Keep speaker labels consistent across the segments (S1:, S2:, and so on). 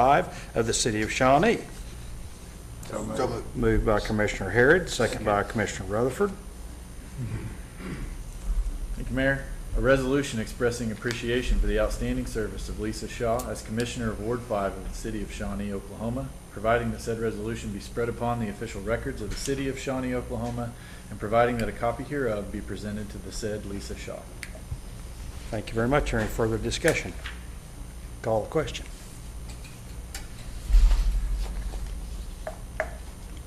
S1: 5 of the City of Shawnee. Moved by Commissioner Harrod, second by Commissioner Rutherford.
S2: Thank you, Mayor. A resolution expressing appreciation for the outstanding service of Lisa Shaw as Commissioner of Ward Five of the City of Shawnee, Oklahoma, providing that said resolution be spread upon the official records of the City of Shawnee, Oklahoma, and providing that a copy hereof be presented to the said Lisa Shaw.
S1: Thank you very much. Any further discussion? Call the question.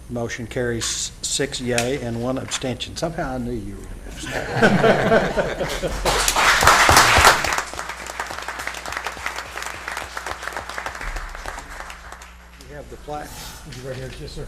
S1: Motion carries six yea and one abstention. Somehow I knew you were going to abstain. You have the plaque.
S3: Right here, yes, sir.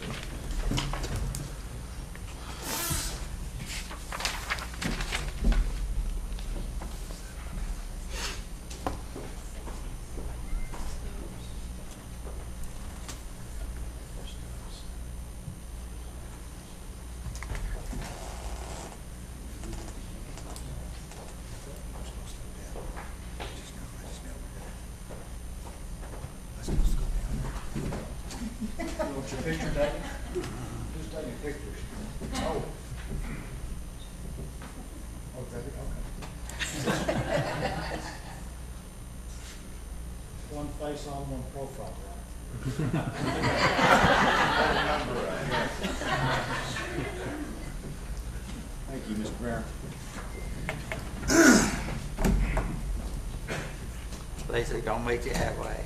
S1: One face on, one profile, right? Thank you, Mr. Mayor.
S4: Lisa, don't make it that way.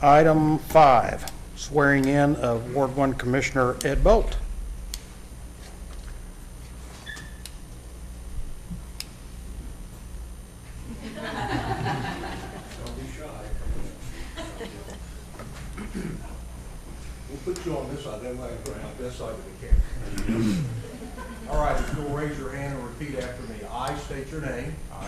S1: Item five, swearing in of Ward One Commissioner Ed Bolt.
S5: We'll put you on this side, then I can put my best side of the camera. All right, if you'll raise your hand and repeat after me. I state your name. I,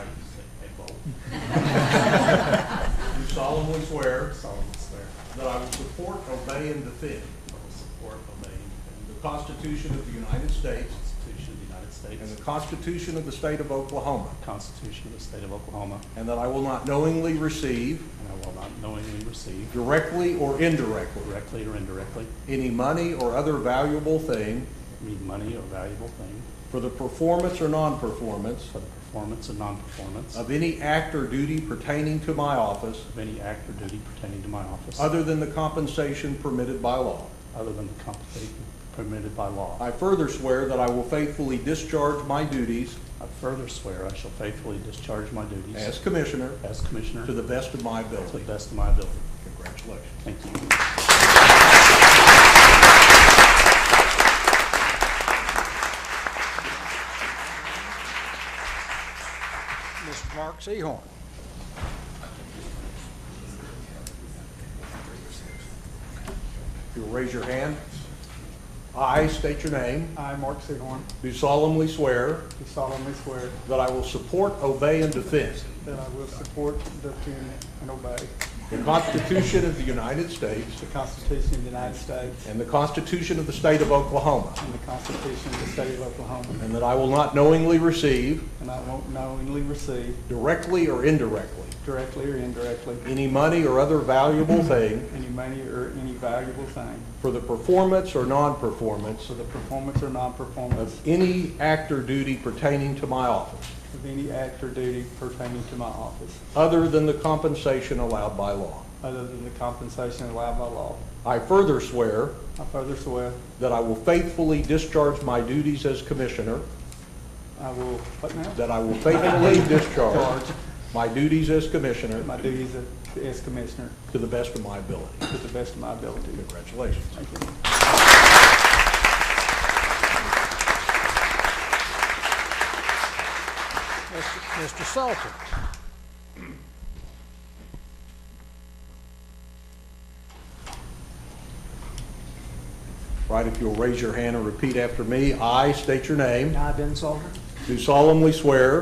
S5: Ed Bolt. Do solemnly swear
S6: solemnly swear
S5: that I will support, obey, and defend
S6: that I will support, obey, and
S5: the Constitution of the United States
S6: the Constitution of the United
S5: and the
S6: States,
S5: Constitution of the State of Oklahoma,
S6: the Constitution of the State of Oklahoma,
S5: and that I will not knowingly receive,
S6: and I will not knowingly receive,
S5: directly or indirectly,
S6: directly or indirectly,
S5: any money or other valuable thing
S6: any money or valuable thing
S5: for the performance or non-performance
S6: for the performance or non-performance of
S5: of any act or duty pertaining to my office
S6: any act or duty pertaining to my office,
S5: other than the compensation permitted by law.
S6: other than the compensation permitted by law.
S5: I further swear that I will faithfully discharge my duties
S6: I further swear I shall faithfully discharge my duties
S5: as Commissioner
S6: as Commissioner
S5: to the best of my
S6: to the
S5: ability.
S6: best of my ability.
S5: Congratulations.
S6: Thank you.
S1: Mr. Mark Sehorn.
S5: If you'll raise your hand. I state your name.
S7: I, Mark Sehorn,
S5: Do solemnly swear
S7: do solemnly swear
S5: that I will support, obey, and defend
S7: that I will support, defend, and obey
S5: the Constitution of the United States
S7: the Constitution of the United States
S5: and the Constitution of the State of Oklahoma,
S7: and the Constitution of the State of Oklahoma,
S5: and that I will not knowingly receive,
S7: and I won't knowingly receive,
S5: directly or indirectly,
S7: directly or indirectly,
S5: any money or other valuable thing
S7: any money or any valuable thing
S5: for the performance or non-performance
S7: for the performance or non-performance
S5: of any act or duty pertaining to my office,
S7: of any act or duty pertaining to my office,
S5: other than the compensation allowed by law.
S7: other than the compensation allowed by law.
S5: I further swear
S7: I further swear
S5: that I will faithfully discharge my duties as commissioner,
S7: I will, what now?
S5: that I will faithfully discharge my duties as commissioner
S7: My duties as- as Commissioner
S5: to the best of my ability.
S7: to the best of my ability.
S5: Congratulations.
S7: Thank you.
S1: Mr. Salter.
S5: Right, if you'll raise your hand and repeat after me, I state your name.
S8: I, Ben Salter,
S5: do solemnly swear